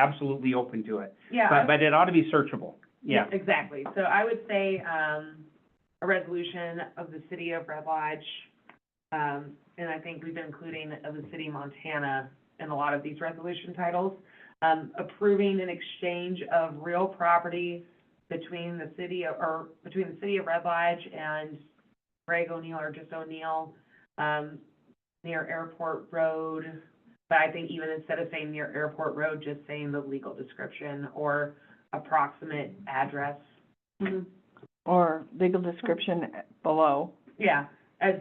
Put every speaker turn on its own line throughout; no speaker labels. absolutely open to it.
Yeah. I-
But, but it ought to be searchable, yeah.
Exactly. So I would say, um, a resolution of the city of Red Lodge, um, and I think we've been including of the city of Montana in a lot of these resolution titles, um, approving an exchange of real property between the city of, or between the city of Red Lodge and Greg O'Neill or just O'Neill, um, near Airport Road. But I think even instead of saying near Airport Road, just saying the legal description or approximate address. Mm-hmm.
or legal description below
Yeah, as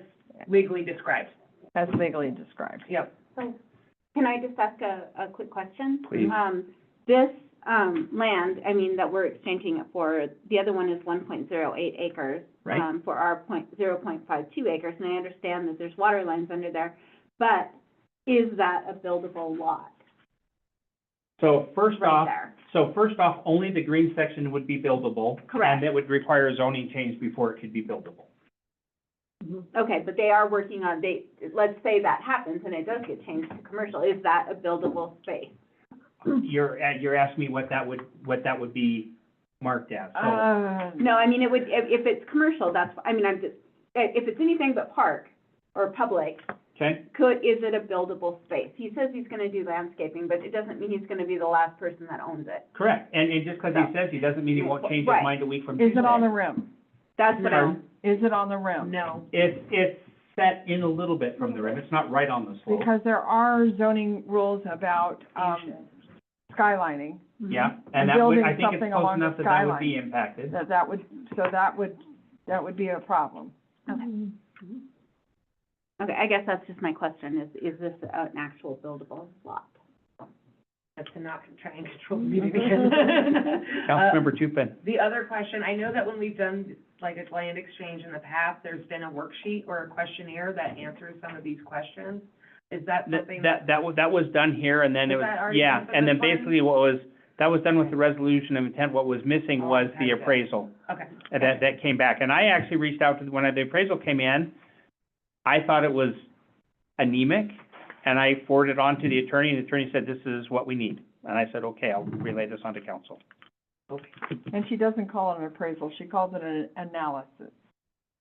legally described.
as legally described.
Yep.
Can I just ask a, a quick question?
Please.
Um, this, um, land, I mean, that we're exchanging it for, the other one is one point zero eight acres.
Right.
Um, for our point, zero point five two acres, and I understand that there's water lines under there, but is that a buildable lot
So first
right
off,
there?
so first off, only the green section would be buildable.
Correct.
And it would require a zoning change before it could be buildable.
Okay, but they are working on, they, let's say that happens and it does get changed to commercial, is that a buildable space?
You're, uh, you're asking me what that would, what that would be marked as, so.
Uh,
Um,
No, I mean, it would, if, if it's commercial, that's, I mean, I'm just, if it's anything but park or public,
Okay,
could, is it a buildable space? He says he's gonna do landscaping, but it doesn't mean he's gonna be the last person that owns it.
correct. And, and just because he says he doesn't mean he won't change his
Right.
mind a week from
Is
Tuesday.
it on the rim?
That's what I'm,
Is it on the rim?
No.
It's, it's set in a little bit from the rim. It's not right on the slope.
Because there are zoning rules about, um, skylining,
Mm-hmm.
Yeah, and that would,
building
I think it's
something
close
along the
enough that that would be impacted.
that that would, so that would, that would be a problem.
okay. Okay, I guess that's just my question, is, is this an actual buildable lot?
That's to not try and control the meeting again. Uh,
Tupin.
The other question, I know that when we've done like a land exchange in the past, there's been a worksheet or a questionnaire that answers some of these questions. Is that
That,
something?
that, that was, that was done here, and then it
Was
was,
that already
yeah,
done for
and then
this one?
basically what was, that was done with the resolution of intent, what was missing
Oh,
was
okay,
the
good.
appraisal.
Okay.
And that, that came back, and I actually reached out to, when the appraisal came in, I thought it was anemic, and I forwarded it on to the attorney, and the attorney said, this is what we need. And I said, okay, I'll relay this on to council.
And she doesn't call it an appraisal, she calls it an analysis,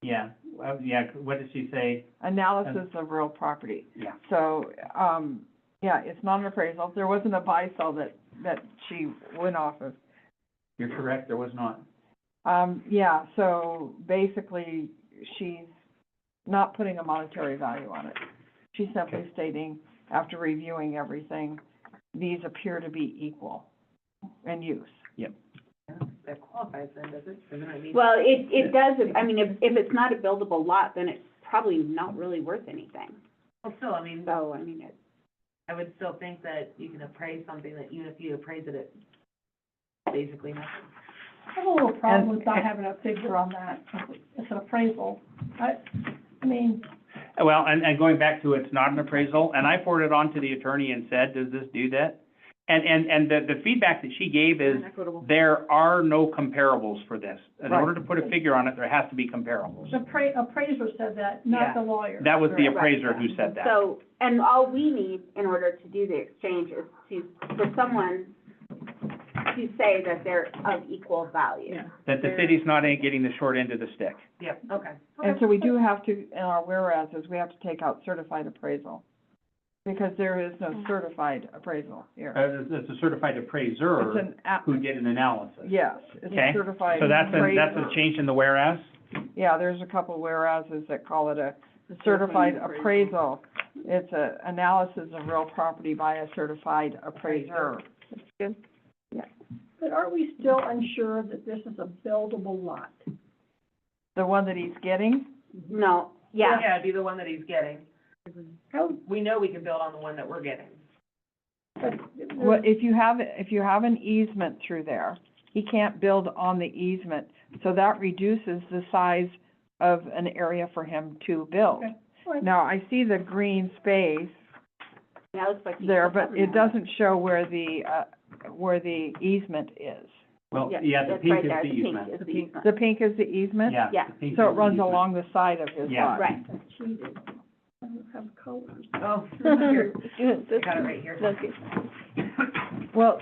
Yeah, uh, yeah, what did she say?
analysis of real property.
Yeah.
So, um, yeah, it's not an appraisal, there wasn't a buy-sell that, that she went off of.
You're correct, there was not.
Um, yeah, so basically, she's not putting a monetary value on it. She's simply stating, after reviewing everything, these appear to be equal in use.
That qualifies then, does it? Doesn't it mean?
Well, it, it does, if- I mean, if, if it's not a buildable lot, then it's probably not really worth anything.
Well, still, I mean,
So, I mean, it,
I would still think that you can appraise something that even if you appraise it, it's basically nothing.
I have a little problem with not
And-
having a figure on that, it's an appraisal, I, I mean,
Well, and, and going back to it's not an appraisal, and I forwarded on to the attorney and said, does this do that? And, and, and the, the feedback that she gave is,
Equitable.
there are no comparables for this. In
Right.
order to put a figure on it, there has to be comparables.
the appra- appraiser said that,
Yeah.
not the lawyer.
That was the
Right,
appraiser
yeah.
who said that.
So, and all we need in order to do the exchange is to, for someone to say that they're of equal value.
That the city's not in- getting the short end of the stick.
Yep, okay.
And so we do have to, in our whereases, we have to take out certified appraisal, because there is no
Mm-hmm.
certified appraisal
Uh,
here.
it's- it's a certified
It's
appraiser
an, app-
who did an analysis.
yes, it's
Okay,
a certified
So that's a, that's
appraisal.
a change in the whereas?
Yeah, there's a couple whereases that call it a certified appraisal. It's a analysis of real property by a certified appraiser.
But are we still unsure that this is a buildable lot?
The one that he's getting,
No, yeah,
Yeah, it'd be the one that he's getting.
How,
We know we can build on the one that we're getting.
but,
well, if you have, if you have an easement through there, he can't build on the easement. So that reduces the size of an area for him to build.
Okay. All right.
Now, I see the green space
that looks like. he's
there, but
something
it
there.
doesn't show where the, uh, where the easement is.
Well,
Yeah,
yeah, the
that's
pink
right
is
there,
the
pink
easement.
is the easement.
The pink is the easement?
Yeah.
Yeah.
the pink
So
is
it
the
runs
easement.
along the side of his lot.
Yeah.
Right,
I cheated, I don't have colors.
Oh. Here, I got it right here.
Well,